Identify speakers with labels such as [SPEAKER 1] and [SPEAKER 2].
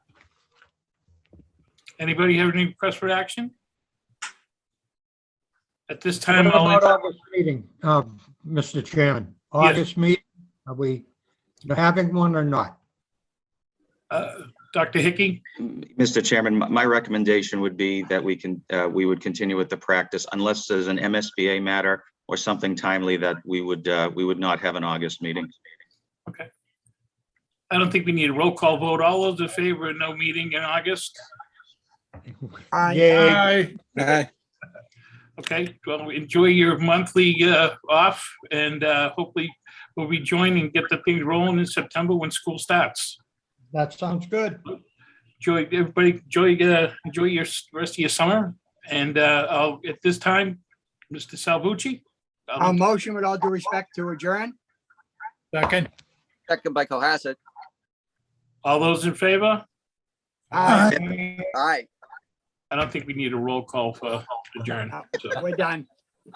[SPEAKER 1] Anybody have any requests for action? At this
[SPEAKER 2] What
[SPEAKER 1] time,
[SPEAKER 2] about
[SPEAKER 1] I'll,
[SPEAKER 2] August meeting, uh, Mr. Chairman? August meeting, are we having one or not?
[SPEAKER 1] uh, Dr. Hickey,
[SPEAKER 3] Mr. Chairman, my- my recommendation would be that we can, uh, we would continue with the practice unless there's an MSBA matter or something timely that we would, uh, we would not have an August meeting.
[SPEAKER 1] I don't think we need a roll call vote. All those in favor, of no meeting in August?
[SPEAKER 2] Yay,
[SPEAKER 4] Aye.
[SPEAKER 1] Okay, well, enjoy your monthly uh, off and uh, hopefully we'll rejoin and get the things rolling in September when school starts.
[SPEAKER 2] that sounds good.
[SPEAKER 1] Enjoy, everybody, enjoy, uh, enjoy your s- rest of your summer. And uh, I'll, at this time, Mr. Salvucci? I'll-
[SPEAKER 5] I'll motion with all due respect to adjourn.
[SPEAKER 4] Second.
[SPEAKER 6] Second by Cohasset.
[SPEAKER 1] All those in favor?
[SPEAKER 5] Aye.
[SPEAKER 6] Aye.
[SPEAKER 1] I don't think we need a roll call for adjourn. so.
[SPEAKER 5] We're done.